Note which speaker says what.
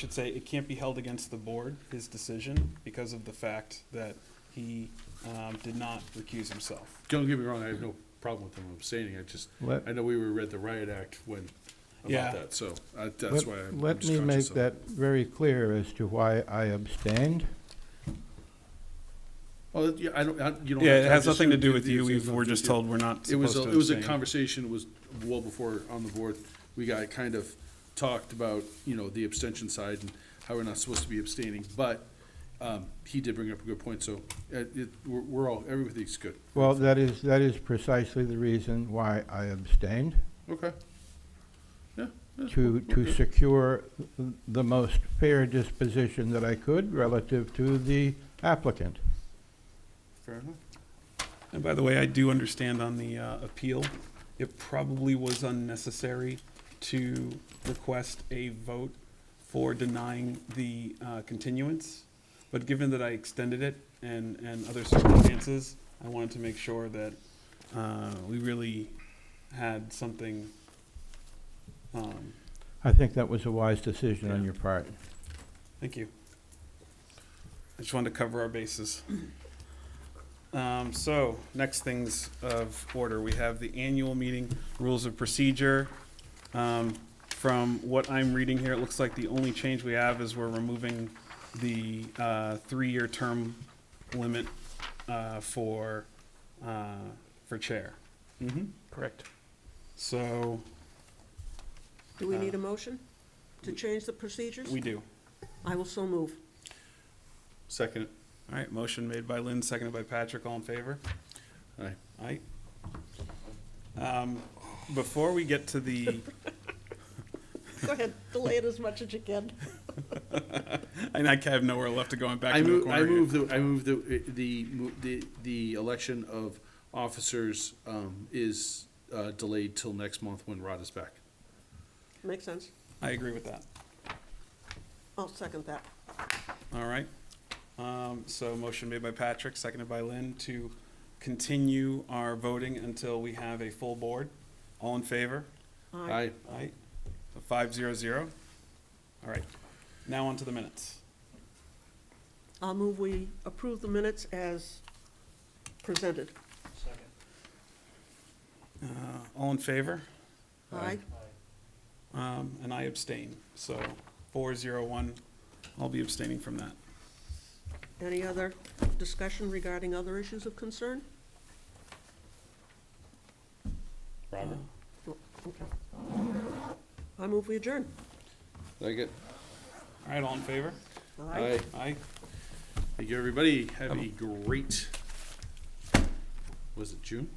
Speaker 1: should say it can't be held against the board, his decision, because of the fact that he um, did not recuse himself.
Speaker 2: Don't get me wrong, I have no problem with them abstaining, I just,
Speaker 3: Let-
Speaker 2: I know we were read the riot act when,
Speaker 1: Yeah.
Speaker 2: about that, so I- that's
Speaker 3: Let-
Speaker 2: why I'm I'm
Speaker 3: Let
Speaker 2: just
Speaker 3: me make
Speaker 2: conscious of.
Speaker 3: that very clear as to why I abstained.
Speaker 2: Oh, yeah, I don't, I, you don't.
Speaker 1: Yeah,
Speaker 2: have
Speaker 1: it has
Speaker 2: I just-
Speaker 1: nothing to do with
Speaker 2: it
Speaker 1: you,
Speaker 2: has
Speaker 1: We've- we're
Speaker 2: nothing to
Speaker 1: just
Speaker 2: do-
Speaker 1: told we're not
Speaker 2: It
Speaker 1: supposed
Speaker 2: was,
Speaker 1: to
Speaker 2: a- it was a
Speaker 1: abstain.
Speaker 2: conversation, it was well before on the board, we got kind of talked about, you know, the abstention side and how we're not supposed to be abstaining, but, um, he did bring up a good point, so, uh, it, we're, we're all, everything's good.
Speaker 3: Well, that is, that is precisely the reason why I abstained,
Speaker 2: Okay. Yeah. yeah,
Speaker 3: to, to
Speaker 2: okay.
Speaker 3: secure the most fair disposition that I could relative to the applicant.
Speaker 2: Fair enough.
Speaker 1: And by the way, I do understand on the uh, appeal, it probably was unnecessary to request a vote for denying the uh, continuance, but given that I extended it and, and other circumstances, I wanted to make sure that uh, we really had something. um,
Speaker 3: I think that was a wise decision on your part.
Speaker 1: Thank you. I just wanted to cover our bases. Um, so, next things of order, we have the annual meeting rules of procedure. Um, from what I'm reading here, it looks like the only change we have is we're removing the, uh, three-year term limit, uh, for, uh, for chair.
Speaker 2: Mm-hmm.
Speaker 1: Correct. So,
Speaker 4: Do we
Speaker 1: Uh,
Speaker 4: need a motion to change the procedures?
Speaker 1: we do.
Speaker 4: I will so move.
Speaker 2: Second.
Speaker 1: All right, motion made by Lynn, seconded by Patrick, all in favor?
Speaker 2: Aye.
Speaker 1: Aye. Um, before we get to the,
Speaker 4: Go ahead, delay it as much as you can.
Speaker 1: and I have nowhere left to go, I'm back
Speaker 2: I
Speaker 1: into a
Speaker 2: move, I
Speaker 1: corner
Speaker 2: move
Speaker 1: here.
Speaker 2: the, I move the, the, mo- the, the election of officers, um, is, uh, delayed till next month when Rod is back.
Speaker 4: Makes sense.
Speaker 1: I agree with that,
Speaker 4: I'll second that.
Speaker 1: all right. Um, so motion made by Patrick, seconded by Lynn to continue our voting until we have a full board. All in favor?
Speaker 4: Aye.
Speaker 2: Aye,
Speaker 1: Aye. So five zero zero. All right, now on to the minutes.
Speaker 4: I'll move we approve the minutes as presented.
Speaker 1: Uh, all in favor?
Speaker 4: Aye.
Speaker 1: Um, and I abstain, so four zero one, I'll be abstaining from that.
Speaker 4: Any other discussion regarding other issues of concern?
Speaker 1: Robert?
Speaker 4: Oh, Okay. I move we adjourn.
Speaker 2: second.
Speaker 1: All right, all in favor?
Speaker 2: Aye.
Speaker 1: Aye.
Speaker 2: Thank you, everybody. Have a great, was it June?